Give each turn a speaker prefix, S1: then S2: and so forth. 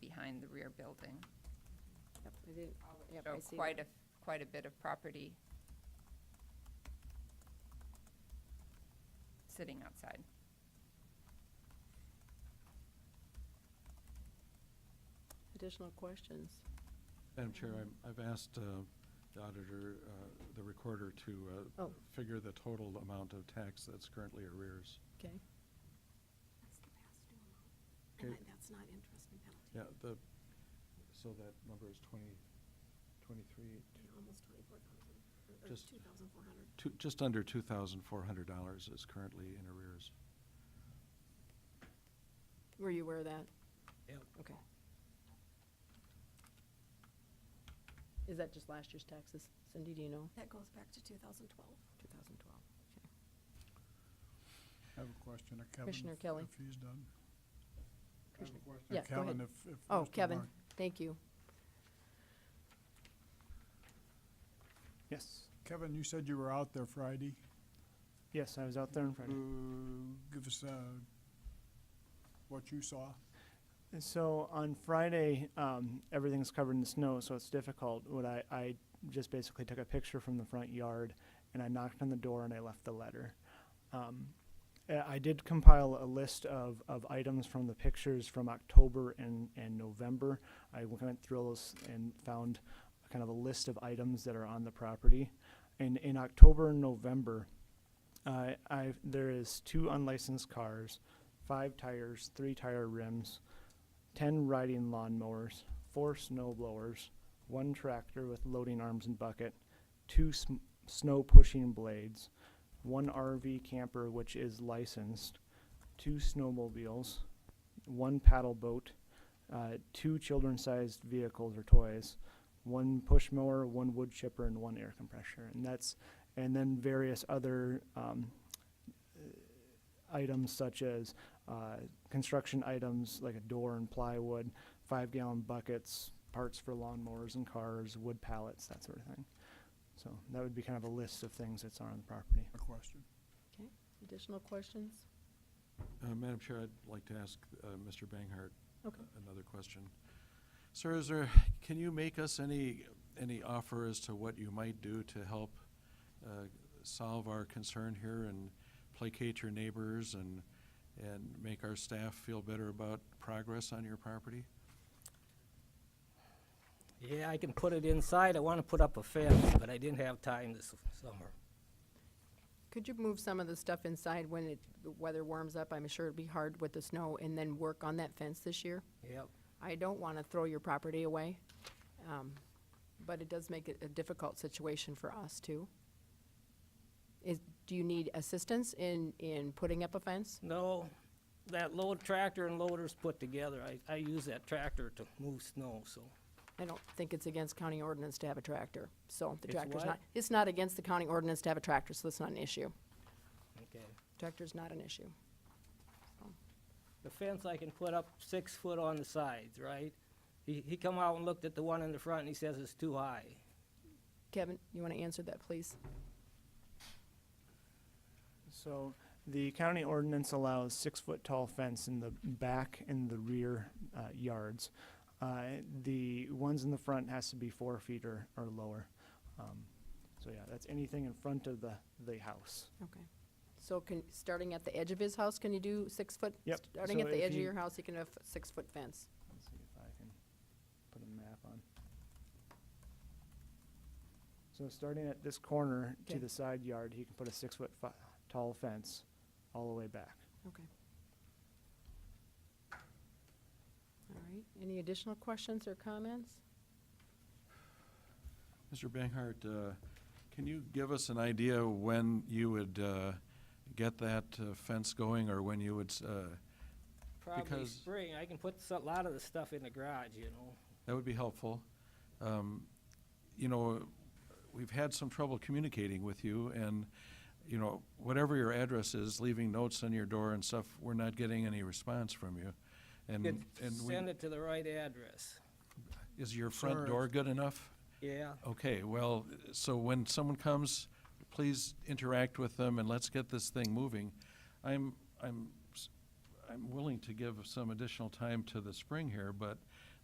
S1: behind the rear building.
S2: Yep, I did, yep,
S1: So
S2: I see
S1: quite
S2: that.
S1: a, quite a bit of property sitting outside.
S2: Additional questions?
S3: Madam Chair, I'm- I've asked uh, the auditor, uh, the recorder, to uh,
S2: Oh.
S3: figure the total amount of tax that's currently arrears.
S2: Okay.
S4: That's the past due amount.
S3: Okay.
S4: And that- that's not interest and penalty.
S3: Yeah, the, so that number is 20, 23,
S4: Yeah, Almost twenty-four thousand, or
S3: Just-
S4: two thousand four hundred.
S3: two- just under $2,400 is currently in arrears.
S2: Were you aware of that?
S5: Yep.
S2: Okay. Is that just last year's taxes? Cindy, do you know?
S4: That goes back to two thousand twelve.
S2: 2012, okay.
S6: I have a question of Kevin.
S2: Commissioner
S6: if-
S2: Kelly.
S6: If he's done. I have a
S2: Commissioner-
S6: question of
S2: yeah, go
S6: Kevin,
S2: ahead.
S6: if- if
S2: Oh,
S6: Mr.
S2: Kevin,
S6: Bar-
S2: thank you.
S7: Yes,
S6: Kevin, you said you were out there Friday.
S7: yes, I was out there on Friday.
S6: Uh, Give us uh, what you saw.
S7: So on Friday, um, everything's covered in snow, so it's difficult. What I, I just basically took a picture from the front yard and I knocked on the door and I left the letter. Um, uh, I did compile a list of, of items from the pictures from October and, and November. I went through those and found kind of a list of items that are on the property. And in October and November, Uh, I there is two unlicensed cars, five tires, three tire rims, ten riding lawnmowers, four snow blowers, one tractor with loading arms and bucket, two sm- snow pushing blades, one RV camper which is licensed, two snowmobiles, one paddle boat, uh, two children-sized vehicles or toys, one push mower, one wood chipper, and one air compressor, and that's and then various other um, uh, items such as uh, construction items like a door and plywood, five-gallon buckets, parts for lawnmowers and cars, wood pallets, that sort of thing. So that would be kind of a list of things that's on the property.
S6: A question.
S2: Okay, additional questions?
S3: Uh, Madam Chair, I'd like to ask uh, Mr. Banghart
S2: Okay.
S3: another question. Sir, is there, can you make us any, any offer as to what you might do to help uh, solve our concern here and placate your neighbors and, and make our staff feel better about progress on your property?
S5: Yeah, I can put it inside. I want to put up a fence, but I didn't have time this summer.
S2: Could you move some of the stuff inside when it, the weather warms up? I'm sure it'd be hard with the snow, and then work on that fence this year?
S5: Yep.
S2: I don't want to throw your property away, um, but it does make it a difficult situation for us, too. Is, do you need assistance in, in putting up a fence?
S5: No, that load tractor and loader's put together. I, I use that tractor to move snow, so.
S2: I don't think it's against county ordinance to have a tractor, so the
S5: It's
S2: tractor's
S5: what?
S2: not, it's not against the county ordinance to have a tractor, so it's not an issue.
S5: Okay.
S2: Tractor's not an issue.
S5: The fence I can put up six foot on the sides, right? He, he come out and looked at the one in the front and he says it's too high.
S2: Kevin, you want to answer that, please?
S7: So the county ordinance allows six-foot tall fence in the back and the rear uh, yards. Uh, The ones in the front has to be four feet or, or lower. Um, So yeah, that's anything in front of the, the house.
S2: Okay. So can, starting at the edge of his house, can you do six foot?
S7: Yep.
S2: Starting at
S7: So
S2: the
S7: if
S2: edge of
S7: you-
S2: your house, you can have a six-foot fence.
S7: Let's see if I can put a map on. So starting at this corner
S2: Okay.
S7: to the side yard, he can put a six-foot fi- tall fence all the way back.
S2: Okay. All right, any additional questions or comments?
S3: Mr. Banghart, uh, can you give us an idea when you would uh, get that uh, fence going or when you would, uh,
S5: Probably
S3: Because-
S5: spring. I can put a lot of the stuff in the garage, you know?
S3: That would be helpful. Um, You know, we've had some trouble communicating with you, and, you know, whatever your address is, leaving notes on your door and stuff, we're not getting any response from you. And,
S5: Could
S3: Mm, and
S5: send
S3: we-
S5: it to the right address.
S3: is your front
S6: Sir.
S3: door good enough?
S5: Yeah.
S3: Okay, well, so when someone comes, please interact with them and let's get this thing moving. I'm, I'm, s- I'm willing to give some additional time to the spring here, but